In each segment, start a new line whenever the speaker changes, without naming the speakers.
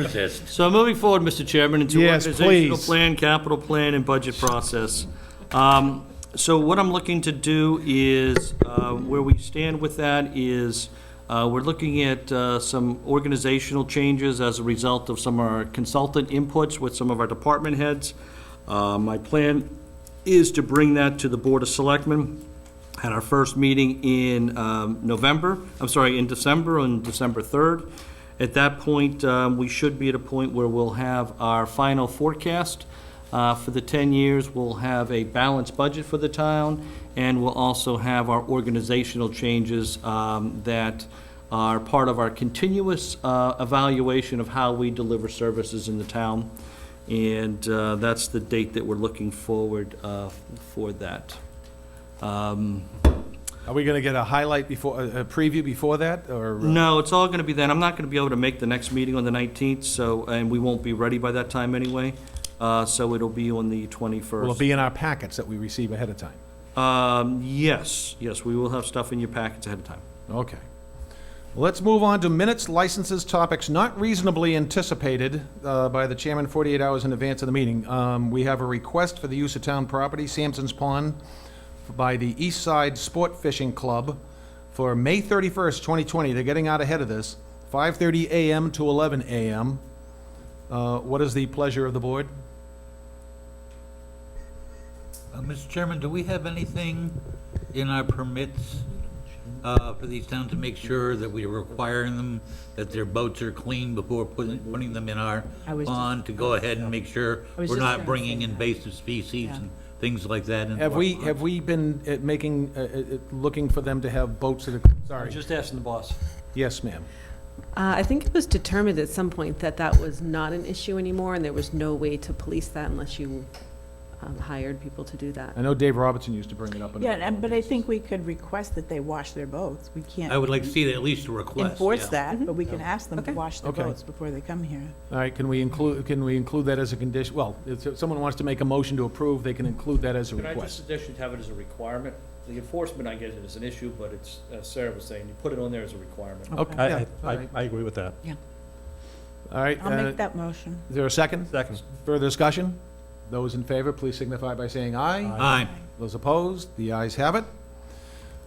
resist.
So moving forward, Mr. Chairman, into
Yes,
organizational
please.
plan, capital plan, and budget process. Um, So what I'm looking to do is, uh, where we stand with that is, uh, we're looking at uh, some organizational changes as a result of some of our consultant inputs with some of our department heads. Uh, My plan is to bring that to the Board of Selectmen at our first meeting in um, November, I'm sorry, in December, on December 3rd. At that point, um, we should be at a point where we'll have our final forecast uh, for the 10 years. We'll have a balanced budget for the town, and we'll also have our organizational changes um, that are part of our continuous uh, evaluation of how we deliver services in the town. And uh, that's the date that we're looking forward uh, for that. Um,
Are we going to get a highlight before, a a preview before that, or? uh,
No, it's all going to be then. I'm not going to be able to make the next meeting on the 19th, so, and we won't be ready by that time anyway. Uh, So it'll be on the
Will it
21st.
be in our packets that we receive ahead of time?
Um, Yes, yes, we will have stuff in your packets ahead of time.
Okay. Let's move on to minutes, licenses, topics not reasonably anticipated uh, by the chairman 48 hours in advance of the meeting. Um, We have a request for the use of town property, Sampson's Pond, by the East Side Sport Fishing Club for May 31st, 2020. They're getting out ahead of this, 5:30 a.m. to 11 a.m. Uh, What is the pleasure of the board?
Uh, Mr. Chairman, do we have anything in our permits uh, for these towns to make sure that we are requiring them, that their boats are clean before putting, putting them in our
I was just-
pond? To go ahead and make sure
I was
we're
just
not
gonna
bringing
say that.
invasive species
Yeah.
and things like that into our
Have we,
pond?
have we been uh, making, uh, uh, uh, looking for them to have boats that are, sorry,
Just asking the boss.
yes, ma'am.
Uh, I think it was determined at some point that that was not an issue anymore, and there was no way to police that unless you um, hired people to do that.
I know Dave Robertson used to bring it up. in-
Yeah, and- but I think we could request that they wash their boats. We
I
can't
would like to see at least a request.
enforce
yeah.
that, but we can ask them
Okay.
to wash their
Mm-hmm. Okay.
boats before they come here.
All right, can we include, can we include that as a condition? Well, if someone wants to make a motion to approve, they can include that as a
Could I just
request.
suggest you have it as a requirement? The enforcement, I get it, is an issue, but it's, as Sarah was saying, you put it on there as a requirement.
Okay, yeah,
I,
all
I,
right.
I agree with that.
All right,
I'll
uh,
make that motion.
is there a second?
Second.
Further discussion? Those in favor, please signify by saying aye.
Aye.
Those opposed, the ayes have it.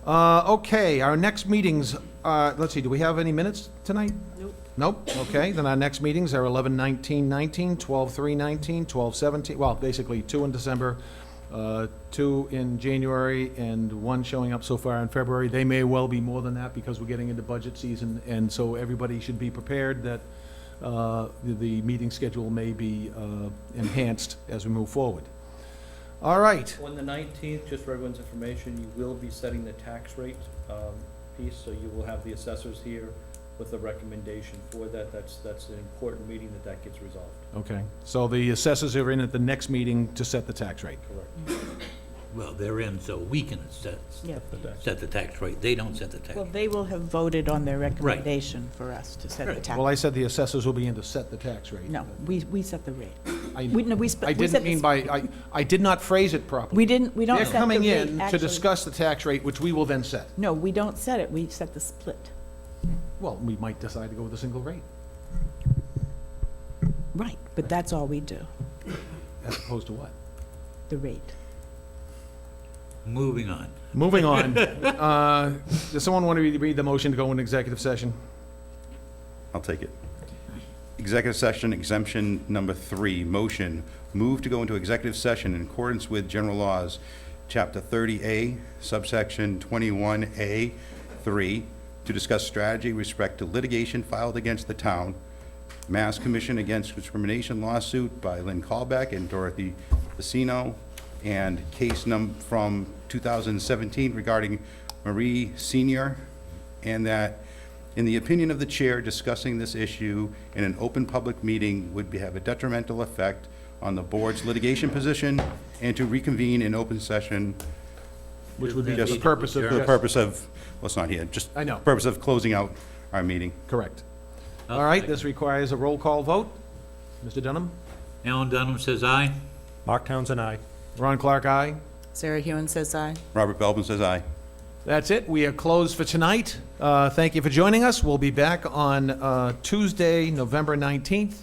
Uh, Okay, our next meetings, uh, let's see, do we have any minutes tonight?
Nope.
Nope, okay, then our next meetings are 11/19/19, 12/3/19, 12/17, well, basically two in December, uh, two in January, and one showing up so far in February. They may well be more than that because we're getting into budget season, and so everybody should be prepared that uh, the- the meeting schedule may be uh, enhanced as we move forward. All right,
On the nineteenth, just for everyone's information, you will be setting the tax rate, um, piece, so you will have the assessors here with a recommendation for that. That's, that's an important meeting that that gets resolved.
Okay, so the assessors are in at the next meeting to set the tax rate.
Correct.
Well, they're in, so we can set,
Yeah.
set the tax rate. They don't set the tax.
Well, they will have voted on their recommendation for us to set the tax.
Well, I said the assessors will be in to set the tax rate.
No, we, we set the rate.
I-
We, no, we. sp-
I
we
didn't
set the
mean
s-
by, I, I did not phrase it properly.
We didn't, we don't
They're
set the rate,
coming in to
actually.
discuss the tax rate, which we will then set.
No, we don't set it, we set the split.
Well, we might decide to go with a single rate,
Right, but that's all we do,
as opposed to what?
the rate.
Moving on.
Moving on, uh, does someone want to read- read the motion to go into executive session?
I'll take it. Executive session exemption number three, motion, move to go into executive session in accordance with general laws, chapter 30A, subsection 21A, 3, to discuss strategy with respect to litigation filed against the town, Mass Commission Against Discrimination lawsuit by Lynn Callback and Dorothy Vecino, and case num, from 2017 regarding Marie Senior, and that, in the opinion of the chair, discussing this issue in an open public meeting would be- have a detrimental effect on the board's litigation position, and to reconvene in open session.
Which would be
Just-
the purpose of.
For the purpose of, well, it's not here, just.
I know.
Purpose of closing out our meeting.
Correct. All
Uh,
right, this requires a roll call vote. Mr. Dunham?
Alan Dunham says aye.
Mark Townsend, aye.
Ron Clark, aye.
Sarah Hewen says aye.
Robert Belvin says aye.
That's it. We are closed for tonight. Uh, Thank you for joining us. We'll be back on uh, Tuesday, November 19th.